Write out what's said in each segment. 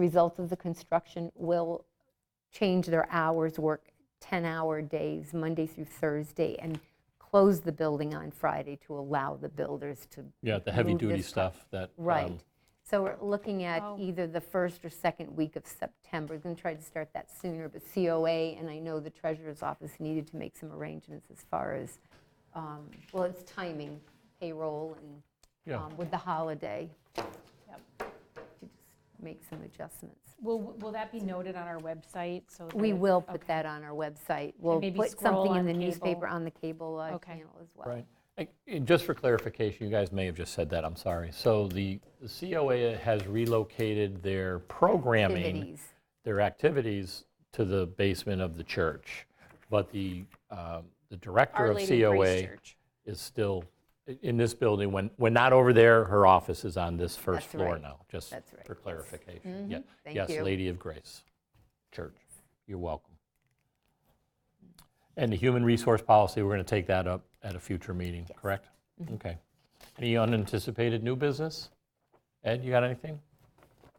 Results of the construction will change their hours, work 10-hour days, Monday through Thursday, and close the building on Friday to allow the builders to. Yeah, the move heavy-duty this- stuff that. um, Right. So we're looking at Oh. either the first or second week of September. We're going to try to start that sooner, but COA, and I know the treasurer's office needed to make some arrangements as far as, um, well, it's timing, payroll, and Yeah. um, with the holiday. To just Make some adjustments. Will, will that be noted on our website? So We that- will put okay. that on our website. We'll maybe put scroll something in on the cable. newspaper on the cable uh, Okay. channel as well. Right. And- and Just for clarification, you guys may have just said that, I'm sorry. So the the COA has relocated their programming, Activities. their activities to the basement of the church. But the, um, the director Our of Lady of Grace COA Church. is still i- in this building. When, when not over there, her office is on this first That's floor right. now, just That's right, for yes. clarification. Yeah. Thank Yes, you. Lady of Grace Church. You're welcome. And the human resource policy, we're going to take that up at a future meeting, correct? Mm-hmm. Okay. Any unanticipated new business? Ed, you got anything?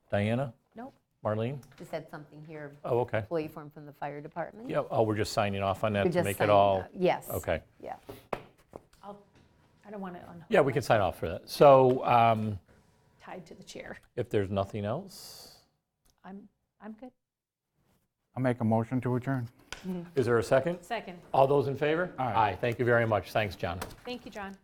Diana? Nope. Marlene? Just had something here, Oh, okay. employee form from the fire department. Yeah, oh, we're just signing off on We're that to just make it signing all, up. Yes. okay. Yeah. I'll- I don't want to unhook. Yeah, we can sign off for that. So um, Tied to the chair. if there's nothing else, I'm, I'm good. I'll make a motion to adjourn. is there a second? Second. All those in favor? Aye. Aye, thank you very much. Thanks, John. Thank you, John.